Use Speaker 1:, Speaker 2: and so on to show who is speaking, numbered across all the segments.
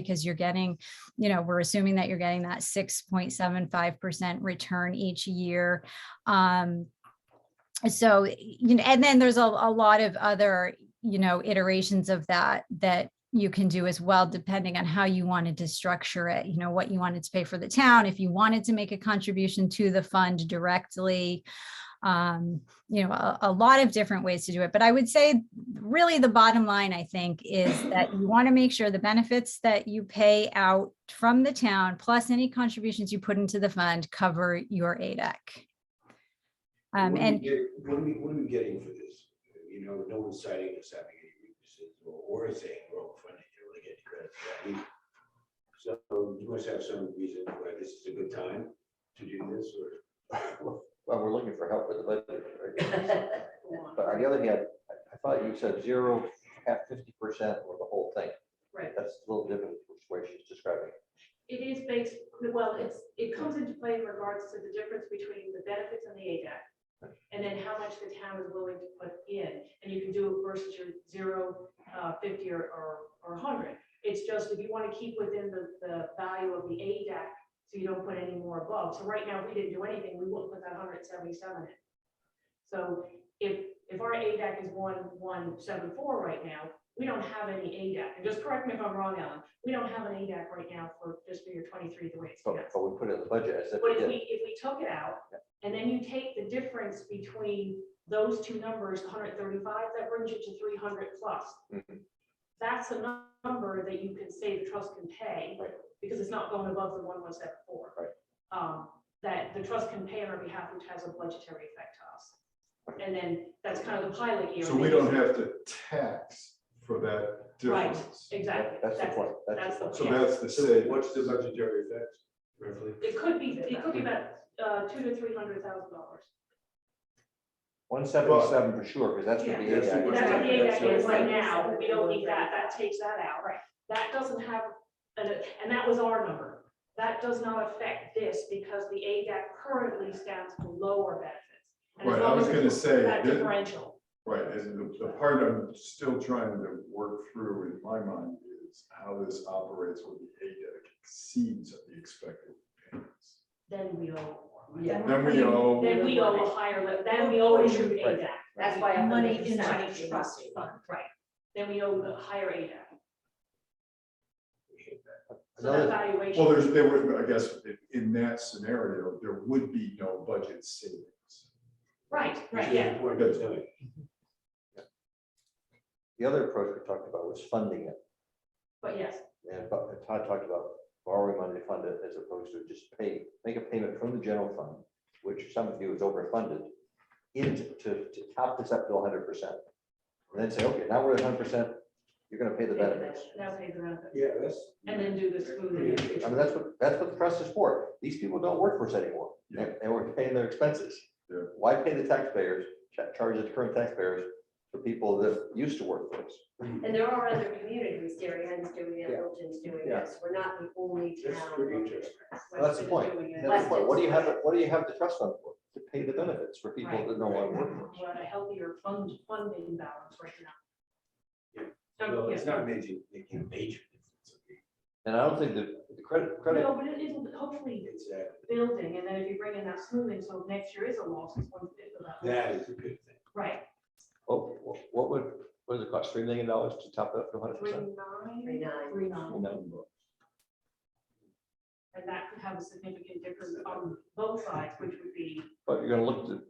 Speaker 1: because you're getting, you know, we're assuming that you're getting that 6.75% return each year. Um, so, you know, and then there's a, a lot of other, you know, iterations of that that you can do as well, depending on how you wanted to structure it, you know, what you wanted to pay for the town, if you wanted to make a contribution to the fund directly. Um, you know, a, a lot of different ways to do it. But I would say really the bottom line, I think, is that you want to make sure the benefits that you pay out from the town, plus any contributions you put into the fund, cover your ADEC. Um,
Speaker 2: What are we
Speaker 1: and
Speaker 2: get- What are we, what are we getting for this? You know, no one's citing us having any weaknesses or- or saying we're overfunded, you really get credit for that either. So you must have some reason why this is a good time to do this or.
Speaker 3: Well, we're looking for help with the budget. right? But on the other hand, I- I thought you said zero, half fifty percent or the whole thing.
Speaker 4: Right.
Speaker 3: That's a little different from the way she's describing. it.
Speaker 4: It is based, well, it's, it comes into play in regards to the difference between the benefits and the ADAC. And then how much the town is willing to put in, and you can do it versus your zero, uh, fifty or, or, or hundred. It's just if you want to keep within the, the value of the ADAC, so you don't put any more above. So right now, if we didn't do anything, we wouldn't put that hundred and seventy-seven in. So if, if our ADAC is one, one, seven, four right now, we don't have any ADAC. And just correct me if I'm wrong, Alan, we don't have an ADAC right now for fiscal year twenty-three, the way it's
Speaker 3: But,
Speaker 4: passed.
Speaker 3: but we put it in the budget as if
Speaker 4: But
Speaker 3: we
Speaker 4: if
Speaker 3: did.
Speaker 4: we, if we took it out, and then you take the difference between those two numbers, hundred thirty-five, that brings you to three hundred plus.
Speaker 3: Mhm.
Speaker 4: That's a nu- number that you can say the trust can pay,
Speaker 3: Right.
Speaker 4: because it's not going above the one one seven four.
Speaker 3: Right.
Speaker 4: Um, that the trust can pay on our behalf, which has a budgetary effect to us. And then that's kind of the pilot year.
Speaker 5: So we don't have to tax for that
Speaker 4: Right.
Speaker 5: difference.
Speaker 4: Exactly.
Speaker 3: That's the point.
Speaker 4: That's the
Speaker 5: So
Speaker 4: point.
Speaker 5: that's the
Speaker 2: So
Speaker 5: saving.
Speaker 2: what's the budgetary effect roughly?
Speaker 4: It could be, it could be about, uh, two to three hundred thousand dollars.
Speaker 3: One seventy-seven for sure, because that's what the
Speaker 4: Yeah.
Speaker 2: That's the
Speaker 3: ADAC.
Speaker 2: budget.
Speaker 4: That's what the
Speaker 2: That's
Speaker 4: ADAC is
Speaker 2: what-
Speaker 4: right now, we don't need that, that takes that out. Right. That doesn't have, and, it- and that was our number. That does not affect this because the ADAC currently stands below our benefits. And as
Speaker 5: Right, I
Speaker 4: long
Speaker 5: was
Speaker 4: as
Speaker 5: gonna
Speaker 4: it's
Speaker 5: say,
Speaker 4: That
Speaker 5: that-
Speaker 4: differential,
Speaker 5: right, and the, the part I'm still trying to work through in my mind is how this operates when the ADEC exceeds the expected payments.
Speaker 4: then we owe more. money.
Speaker 6: Yeah.
Speaker 5: Then we owe,
Speaker 4: Then we owe a higher, li- then we owe issued
Speaker 3: Right.
Speaker 4: ADAC. That's why.
Speaker 6: Money in
Speaker 4: the
Speaker 6: money trust fund.
Speaker 4: Right, then we owe the higher ADAC. So that
Speaker 3: Another,
Speaker 4: valuation.
Speaker 5: well, there's, there were, I guess, in- in that scenario, there would be no budget savings.
Speaker 4: Right,
Speaker 2: Which
Speaker 4: right,
Speaker 2: is
Speaker 4: yeah.
Speaker 2: important to know.
Speaker 3: the other approach we talked about was funding it.
Speaker 4: But yes,
Speaker 3: And but Todd talked about borrowing money to fund it as opposed to just pay, make a payment from the general fund, which some of you is overfunded, into, to, to top this up to hundred percent. And then say, okay, now we're at hundred percent, you're gonna pay the benefits.
Speaker 4: now pay the benefits.
Speaker 2: Yeah, that's.
Speaker 4: And then do the smoothing.
Speaker 3: I mean, that's what, that's what the trust is for. These people don't work for us anymore, and, and we're paying their expenses.
Speaker 5: Yeah.
Speaker 3: Why pay the taxpayers, cha- charge the current taxpayers for people that used to work for us?
Speaker 7: And there are other communities, Darien's doing it, Littleton's doing
Speaker 3: Yeah.
Speaker 7: this, we're not the only
Speaker 2: That's pretty
Speaker 7: town.
Speaker 2: interesting.
Speaker 3: Well, That's the point. That's the point. What do you have, what do you have the trust fund for? To pay the benefits for people that no longer work for us.
Speaker 4: We're at a healthier fund, funding balance right now.
Speaker 2: Yeah.
Speaker 4: Um,
Speaker 2: Well,
Speaker 4: yeah.
Speaker 2: it's not major, making a major difference. okay?
Speaker 3: And I don't think the, the credit, credit,
Speaker 4: No, but it is hopefully
Speaker 2: It's that,
Speaker 4: building, and then if you bring in that smoothing, so next year is a loss, it's one fifth of that.
Speaker 2: that is a good thing.
Speaker 4: Right,
Speaker 3: what, oh, what would, what does it cost? Three million dollars to top it up to hundred
Speaker 4: three
Speaker 3: percent?
Speaker 7: Three
Speaker 4: nine,
Speaker 7: nine.
Speaker 4: three nine,
Speaker 3: Well,
Speaker 4: and that could have a significant difference on both sides, which would be,
Speaker 3: But you're gonna look to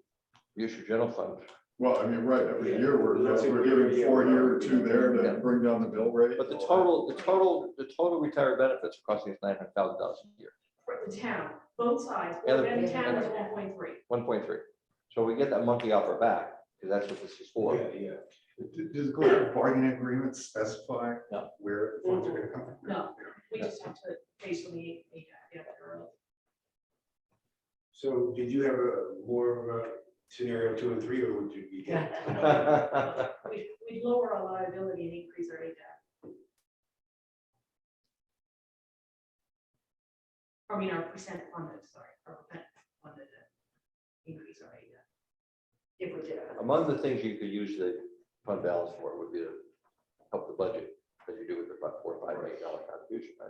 Speaker 3: use your general fund.
Speaker 5: Well, I mean, right, every
Speaker 2: Yeah.
Speaker 5: year we're,
Speaker 2: Let's say
Speaker 5: we're
Speaker 2: we're-
Speaker 5: giving four here,
Speaker 2: yeah.
Speaker 5: two there
Speaker 3: Yeah.
Speaker 5: to bring down the bill rate.
Speaker 3: But the total, the total, the total retiree benefits are costing us nine hundred thousand dollars a year,
Speaker 4: for the town, both sides,
Speaker 3: And
Speaker 4: but
Speaker 3: the-
Speaker 4: then the town
Speaker 7: and
Speaker 4: is
Speaker 7: the-
Speaker 4: one point three.
Speaker 3: one point three. So we get that monkey off our back, because that's what this is for.
Speaker 2: Yeah, yeah.
Speaker 5: D- Does the collective bargaining agreement specify
Speaker 3: No.
Speaker 5: where the funds are gonna come from?
Speaker 4: No. We
Speaker 3: Yeah.
Speaker 4: just have to face on the, yeah, yeah, or-
Speaker 2: So did you have a more of a scenario two and three, or would you be? good?
Speaker 4: We'd, we'd lower our liability and increase our ADAC. I mean, our percent funded, sorry, our percent funded, uh, increase our ADAC.
Speaker 7: If we did. it.
Speaker 3: Among the things you could use the fund balance for would be to help the budget. 'cause as you do with the four, five million dollar contribution, right?